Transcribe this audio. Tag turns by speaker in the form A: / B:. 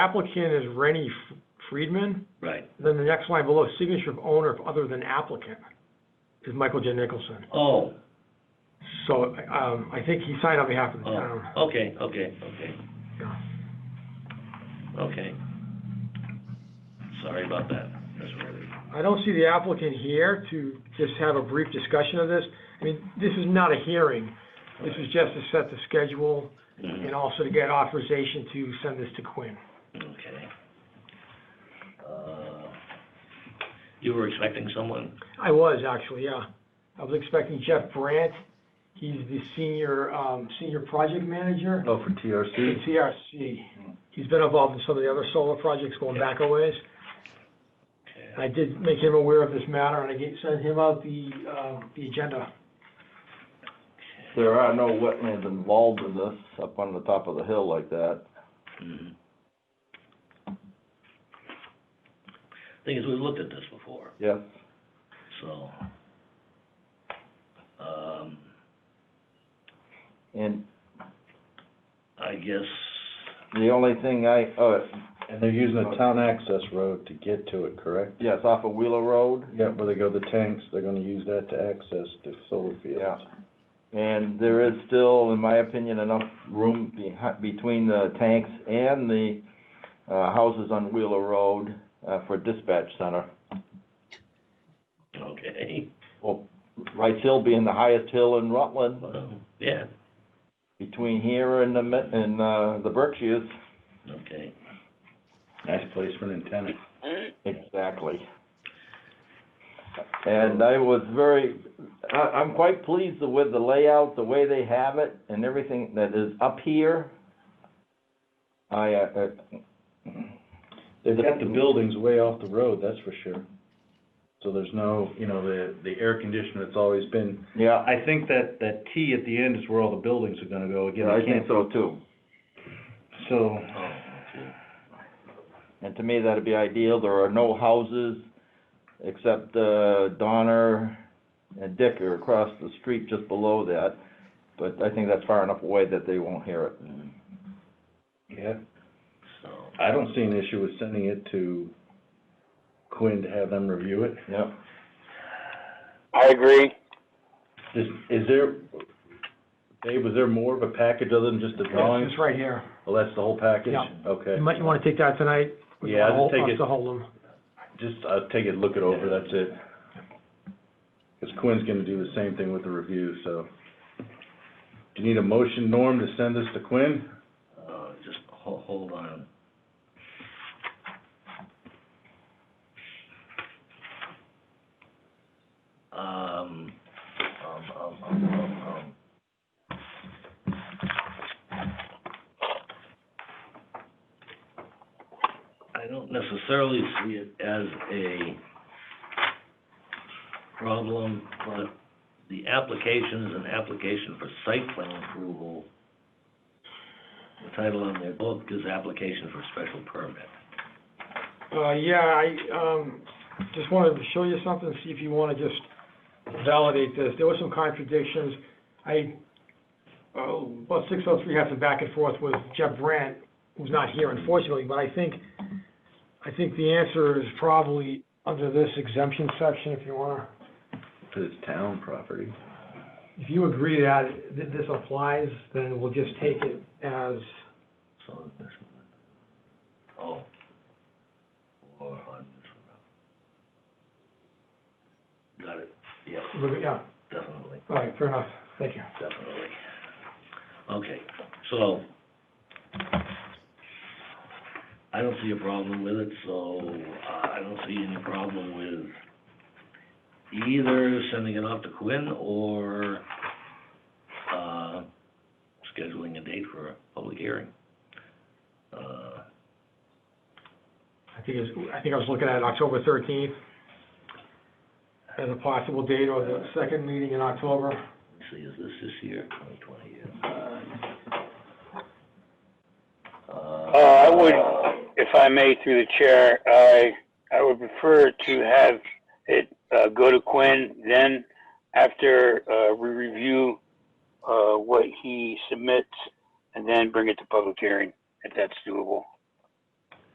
A: applicant is Rennie F- Friedman,
B: Right.
A: then the next line below, signature of owner if other than applicant, is Michael J. Nicholson.
B: Oh,
A: So, um, I think he signed on behalf of the
B: oh,
A: town.
B: okay, okay, okay,
A: Yeah.
B: okay. Sorry about that. That's really,
A: I don't see the applicant here to just have a brief discussion of this. I mean, this is not a hearing. This is just to set the schedule and
B: Mhm,
A: also to get authorization to send this to Quinn.
B: okay. Uh, You were expecting someone?
A: I was actually, yeah. I was expecting Jeff Brandt. He's the senior, um, senior project manager
C: Oh, for
A: at
C: TRC?
A: CRC. He's been involved in some of the other solar projects going back a ways.
B: Okay.
A: I did make him aware of this matter and I gave, sent him out the, um, the agenda.
C: There are no wetlands involved in this up on the top of the hill like that.
B: Mhm. Mm-hmm. Thing is, we've looked at this before.
C: Yes.
B: So, um,
C: And
B: I guess,
C: the only thing I, uh,
D: And they're using a town access road to get to it, correct?
C: yes, off of Wheeler Road,
D: Yeah, where they go the tanks, they're gonna use that to access the solar
C: yeah.
D: fields.
C: And there is still, in my opinion, enough room behi- between the tanks and the, uh, houses on Wheeler Road, uh, for dispatch center.
B: okay,
C: Rice Hill being the highest hill in Rutland,
B: well, yeah,
C: between here and the, Mi- and, uh, the Berkshires.
B: okay.
D: Nice place for an antenna.
C: Exactly. And I was very, I, I'm quite pleased with the layout, the way they have it, and everything that is up here. I, uh, uh,
D: They've got the buildings way off the road, that's for sure. So there's no, you know, the, the air conditioner that's always been,
C: yeah,
D: I think that, that T at the end is where all the buildings are gonna go again.
C: I
D: I
C: think
D: can't-
C: so too.
D: So,
B: Oh, okay.
C: And to me, that'd be ideal, there are no houses except, uh, Donner and Dick are across the street just below that. But I think that's far enough away that they won't hear it.
B: Mm,
D: yeah,
B: So,
D: I don't see an issue with sending it to Quinn to have them review it.
C: Yep.
E: I agree.
D: Is, is there, Dave, was there more of a package other than just the drawings?
A: It's right here.
D: Well, that's the whole package?
A: Yeah.
D: Okay.
A: You might, you wanna take that tonight? We
D: Yeah, I'll
A: want
D: take
A: us
D: it.
A: to hold them.
D: Just, uh, take it, look it over, that's it. Because Quinn's gonna do the same thing with the review, so. Do you need a motion, Norm, to send this to Quinn?
B: uh, just ho- hold on. Um, um, um, um, um, um. I don't necessarily see it as a problem, but the application is an application for site plan approval. The title on their book is application for special permit.
A: Uh, yeah, I, um, just wanted to show you something, see if you wanna just validate this. There were some contradictions. I, uh, about six oh three had some back and forth with Jeff Brandt, who's not here unfortunately, but I think, I think the answer is probably under this exemption section, if you wanna,
D: Because it's town property.
A: if you agree that th- this applies, then we'll just take it as,
B: So this one. Oh. Or on this one. Got it, yes,
A: yeah,
B: definitely,
A: all right, fair enough, thank you.
B: definitely. Okay, so. I don't see a problem with it, so uh, I don't see any problem with either sending it off to Quinn or, uh, scheduling a date for a public hearing. Uh,
A: I think it's, I think I was looking at October thirteenth as a possible date, or the second meeting in October.
B: Let's see, is this this year, twenty twenty, yeah?
E: Uh, I would, if I may, through the chair, I, I would prefer to have it, uh, go to Quinn, then after, uh, we review, uh, what he submits, and then bring it to public hearing, if that's doable.